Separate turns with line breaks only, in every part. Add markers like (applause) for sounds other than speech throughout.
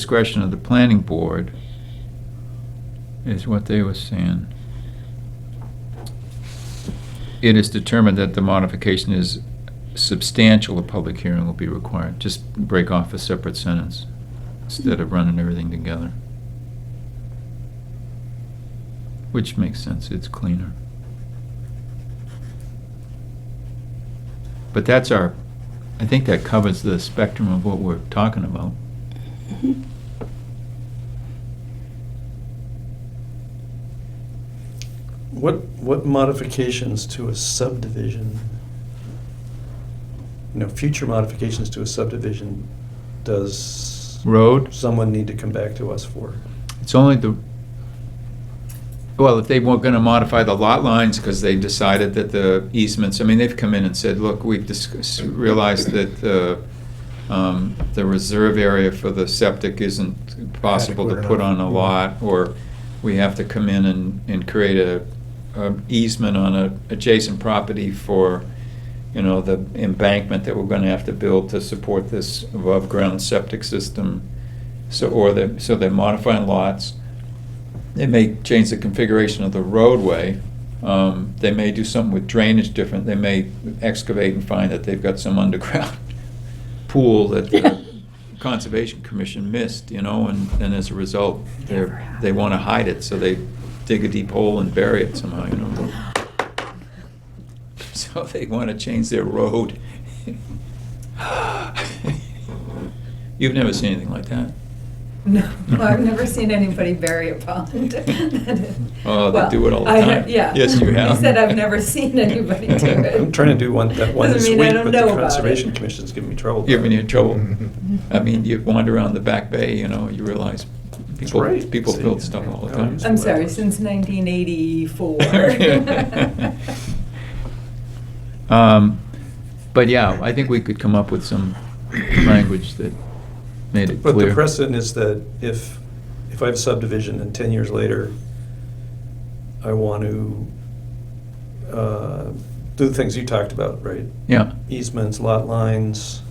discretion of the planning board, is what they were saying. It is determined that the modification is substantial, a public hearing will be required. Just break off a separate sentence instead of running everything together. Which makes sense, it's cleaner. But that's our, I think that covers the spectrum of what we're talking about.
What, what modifications to a subdivision, you know, future modifications to a subdivision does
Road,
someone need to come back to us for?
it's only the, well, if they weren't gonna modify the lot lines because they decided that the easements, I mean, they've come in and said, look, we've discussed, realized that the, um, the reserve area for the septic isn't possible to
Adequate
put
enough.
on a lot, or we have to come in and, and create a, a easement on a adjacent property for, you know, the embankment that we're gonna have to build to support this above-ground septic system. So, or they, so they're modifying lots. They may change the configuration of the roadway. Um, they may do something with drainage different. They may excavate and find that they've got some (laughs) underground pool that the Conservation Commission missed, you know, and, and as a result, they're, they wanna hide it, so they dig a deep hole and bury it somehow, you
(gasps)
know. So they wanna change their road. You've never seen anything like that.
No, I've never seen anybody bury a (laughs) pond.
Oh, they
Well,
do it all the
I-
time.
Yeah.
Yes, you have.
I said I've never
(laughs)
seen anybody do it.
I'm trying to do one, that one this
Doesn't
week,
mean (laughs) I
but
don't
the
know about it.
Conservation Commission's giving me trouble.
You're in trouble.
Mm-hmm.
I mean, you
you
wander around the back bay, you know, you realize
That's
people,
right.
people
See,
build stuff all the
I
time.
always
I'm sorry,
was.
since
(laughs)
1984.
Um, But yeah, I think we could come up with some language that made it
But the
clear.
precedent is that if, if I have a subdivision and 10 years later, I want to uh, do the things you talked about, right?
Yeah,
Easements, lot lines,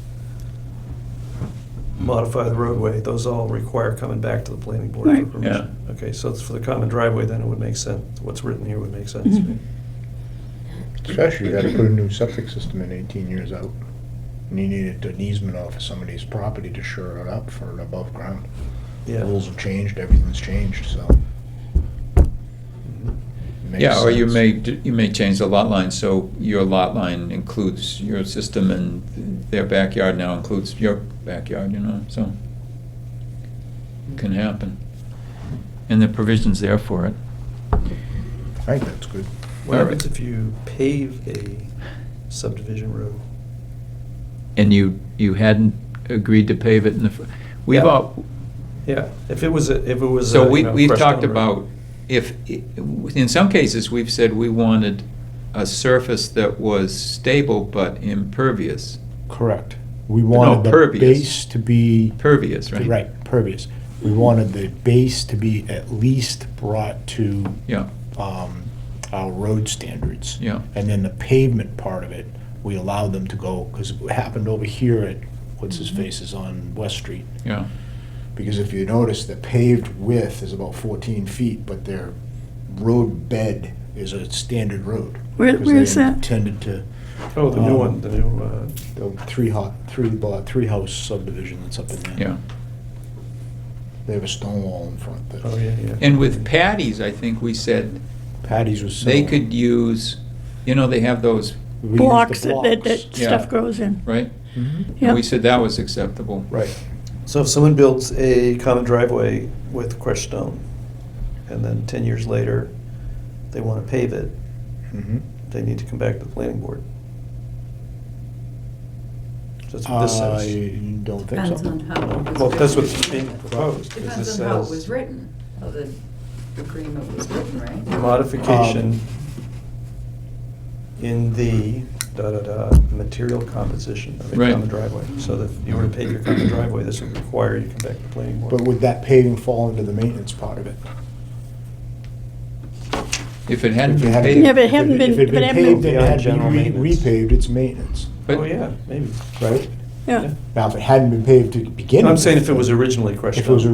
modify the roadway, those all require coming back to the planning board for
Right.
permission. Okay, so it's for the common driveway, then it would make sense, what's written here would make sense.
Mhm.
Especially, you gotta put a new septic system in eighteen years out. And you needed an easement off of somebody's property to shore it up for an above ground.
Yeah.
Rules have changed, everything's changed, so.
Mhm.
it makes
yeah, or you
sense.
may, d- you may change the lot line, so your lot line includes your system and their backyard now includes your backyard, you know, so. Can happen. And the provision's there for it.
I think that's good.
What
All right.
happens if you pave a subdivision road?
And you, you hadn't agreed to pave it in the, fir- we've
Yeah.
all,
Yeah, if it was, a- if it was.
So
a, you
we,
know,
we've
crushed
talked
down road.
about, if, i- in some cases, we've said we wanted a surface that was stable but impervious,
Correct. We
No,
wanted the
pervious.
base to be,
pervious, right?
right, pervious. We wanted the base to be at least brought to
Yeah,
um, our road standards.
yeah,
And then the pavement part of it, we allowed them to go, because it happened over here at, what's his
Mm-hmm.
face is on West Street.
yeah,
Because if you notice, the paved width is about fourteen feet, but their road bed is a standard road.
Where-
because
where
they
is that?
Intended to,
Oh, the new
um,
one, the new, uh,
The three hot, three, lot- three house subdivision that's up in there.
yeah.
they have a stone wall in front that.
oh, yeah, yeah.
And with patties, I think we said,
Patty's was.
they
similar.
could use, you know, they have those,
We used the
blocks that, that,
blocks.
that
Yeah.
stuff grows in.
right?
Mhm.
Mm-hmm.
Yeah.
We said that was acceptable.
Right.
So if someone builds a common driveway with crushed stone, and then ten years later, they want to pave it,
Mm-hmm.
Mhm.
they need to come back to the planning board. That's what this says.
I don't think so.
Depends on how it was
Well, that's
written.
what's being proposed. 'cause this
Depends on how it
says
was written, how the agreement was written, right?
Modification
Um,
in the da-da-da, material composition of
Right.
a common driveway. So that if you were to pave your common driveway, this would require you to come back to the planning board.
But would that paving fall into the maintenance part of it?
If it hadn't
If you
been
had-
paid.
Yeah, but it hadn't been-
If it had
but it
been
hadn't
paved
been-
and it
Beyond
had to be
general
re-
maintenance.
repaved, it's maintenance,
but-
Oh, yeah, maybe.
right?
Yeah.
Now, if it hadn't been paved to begin with.
I'm saying if it was originally crushed
If it was
up.